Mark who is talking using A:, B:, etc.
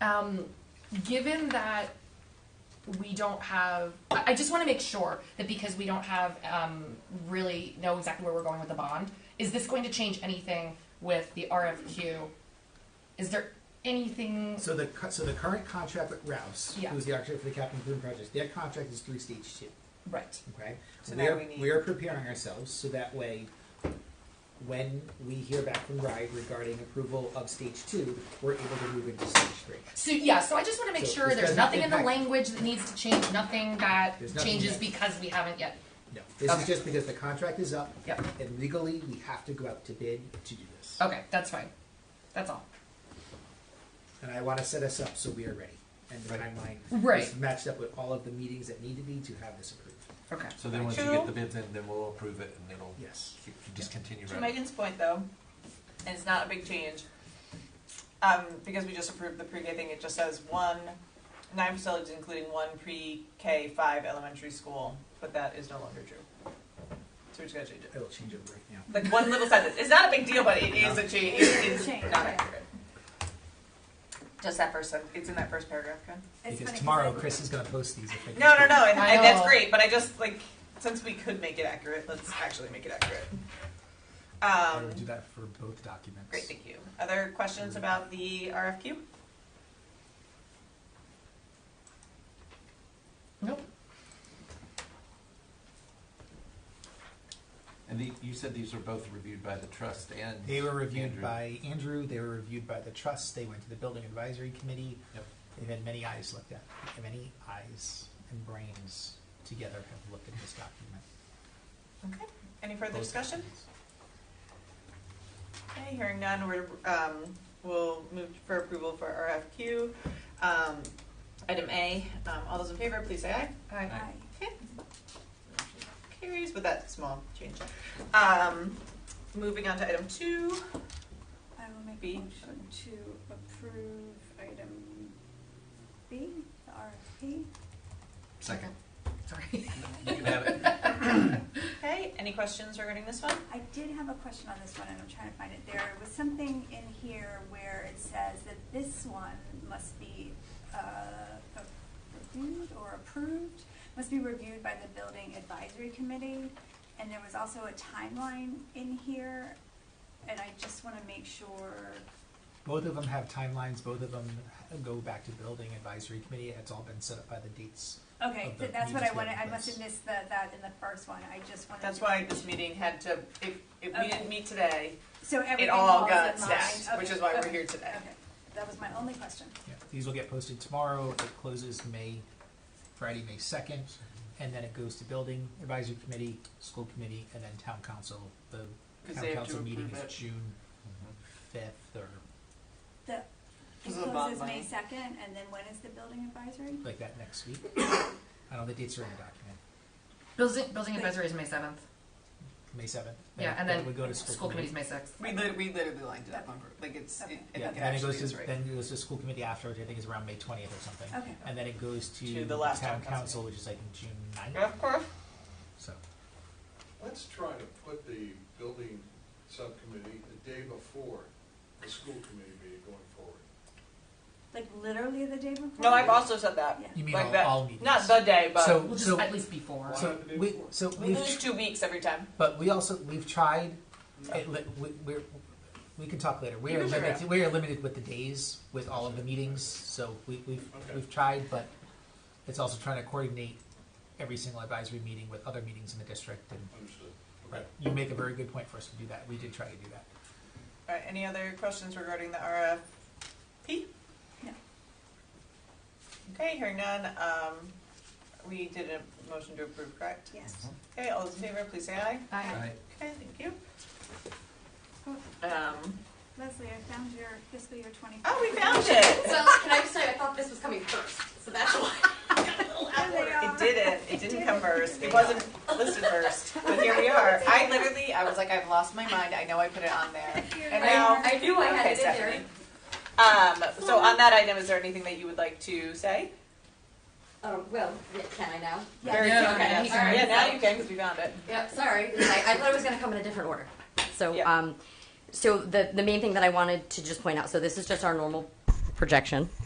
A: Um, given that we don't have, I, I just wanna make sure that because we don't have, um, really know exactly where we're going with the bond, is this going to change anything with the RFQ? Is there anything,
B: So the, cu- so the current contract with Rouse,
A: Yeah.
B: who's the architect for the Captain Boone project, their contract is through stage two,
A: right,
B: okay?
C: So
B: we
C: now
B: are,
C: we need-
B: We are preparing ourselves, so that way, when we hear back from RIDE regarding approval of stage two, we're able to move into stage three.
A: so, yeah, so I just wanna make
B: So
A: sure
B: this
A: there's
B: does not
A: nothing in the
B: impact-
A: language that needs to change, nothing that
B: There's nothing
A: changes
B: yet.
A: because we haven't yet,
B: No, this
A: Okay.
B: is just because the contract is up,
A: yep, Oh.
B: and legally, we have to go out to bid to do this.
A: okay, that's fine, that's all.
B: And I want to set us up so we are ready, and the timeline
A: Right.
B: is matched up with all of the meetings that need to be to have this approved.
A: Okay.
D: So then once you get the bids in, then we'll approve it and it'll
B: Yes.
D: c- just continue
C: To
D: running.
C: Megan's point though, and it's not a big change, um, because we just approved the pre-K thing, it just says one, nine facilities including one pre-K five elementary school, but that is no longer true. So we're just gonna change
B: I
C: it.
B: will change it right now.
C: Like one little sentence, it's not a big deal, but it is a change, it's
E: Change,
C: not
E: yeah.
C: accurate. Just that first, sen- it's in that first paragraph, okay?
E: It's
B: Because
E: funny
B: tomorrow,
E: I-
B: Chris is going to post these. if I can
C: No, no,
B: speak.
C: no, and,
A: I
C: and that's
A: know.
C: great, but I just like, since we could make it accurate, let's actually make it accurate.
F: I
C: Um,
F: would do that for both documents.
C: Great, thank you. Other questions about the RFQ?
A: Nope.
D: And the, you said these were both reviewed by the trust and.
F: They were reviewed
D: Andrew.
F: by Andrew. They were reviewed by the trust. They went to the building advisory committee.
D: Yep.
F: They've had many eyes looked at. Many eyes and brains together have looked at this document.
C: Okay, any further
F: Both
C: discussion?
F: documents.
C: Okay, hearing none, we're, um, we'll move for approval for RFQ. Um, item A, um, all those in favor, please say aye.
A: Alright.
E: Aye.
C: Okay. Motion Carries with that small change. Um, moving on to item two,
E: I will make
C: B.
E: a motion to approve item B, the RFP.
D: Second.
A: Sorry.
D: You can have it. Mm-hmm.
C: okay, any questions regarding this one?
E: I did have a question on this one, and I'm trying to find it. There was something in here where it says that this one must be uh, reviewed or approved, must be reviewed by the building advisory committee, and there was also a timeline in here, and I just want to make sure,
F: Both of them have timelines. Both of them go back to building advisory committee. It's all been set up by the dates.
E: okay,
F: Of
E: so
F: the
E: that's what I
F: previous
E: wanted, I
F: meeting,
E: must have
F: yes.
E: missed the, that in the first one, I just wanted to.
C: That's why this meeting had to, if, if we didn't meet today,
E: So
C: it
E: everything
C: all
E: falls in
C: got
E: line.
C: stacked, which
E: Okay,
C: is why we're
E: okay,
C: here today.
E: Okay, that was my only question.
F: Yeah. These will get posted tomorrow. It closes May, Friday, May second, and then it goes to building advisory committee, school committee, and then town council. The
C: Because
F: town
C: they have to
F: council meeting
C: approve it.
F: is June fifth or
E: The, it
C: This is a bond
E: closes May
C: money.
E: second, and then when is the building advisory?
F: like that next week. I don't know, the dates are in the document.
A: Building, building advisory is May seventh.
F: May seventh.
A: Yeah, and then
F: we go to
A: school committee's May sixth.
C: We lit- we literally lined it up on, pur- like it's, it, I
F: Yeah,
C: think
F: and
C: it
F: then it
C: actually
F: goes
C: is
F: to,
C: right.
F: then it goes to school committee after, which I think is around May twentieth or something.
E: Okay.
F: And then it goes
C: To
F: to
C: the
F: the
C: last
F: town
C: town
F: council,
C: council
F: which is like June ninth,
C: Of course.
F: so.
G: Let's try to put the building subcommittee the day before the school committee meeting going forward.
E: Like literally the day before?
C: No, I've also said that.
E: Yeah.
F: You mean
C: Like
F: all,
C: that-
F: all meetings?
C: Not the day, but
F: So-
A: Well, just at least before.
F: So
G: Why?
F: we, so
C: we
F: we've,
C: lose two weeks every time.
F: but we also, we've tried, it li- we, we're, we can talk later. We
C: You
F: are
C: can figure it
F: limited, we are limited with the days with all of the meetings, so we, we've,
G: Okay.
F: we've tried, but it's also trying to coordinate every single advisory meeting with other meetings in the district and
G: Understood.
F: But you make a very good point for us to do that. We did try to do that.
C: All right, any other questions regarding the RFP?
E: No.
C: Okay, hearing none, um, we did a motion to approve, correct?
E: Yes.
C: Okay, all those in favor, please say aye.
A: Aye.
D: Mm-hmm. Right.
C: Okay, thank you. Um,
E: Leslie, I found your fiscal year twenty.
C: oh, we found it.
H: So can I just say, I thought this was coming first, so that's why.
E: There they are.
C: It didn't, it didn't come first, it wasn't listed first, but here we are. I literally, I was like, I've lost my mind, I know I put it on there. And now,
H: I knew I had
C: Okay,
H: it in there.
C: Stephanie. Um, so on that item, is there anything that you would like to say?
H: Um, well, yeah, can I now?
E: Yeah.
C: Very
A: Yeah,
C: quick,
A: yeah,
C: yes.
A: you can.
C: Yeah, now you can, because we found it.
H: Yep, sorry. I, I thought it was gonna come in a different order. So,
C: Yeah.
H: um, so the, the main thing that I wanted to just point out, so this is just our normal projection.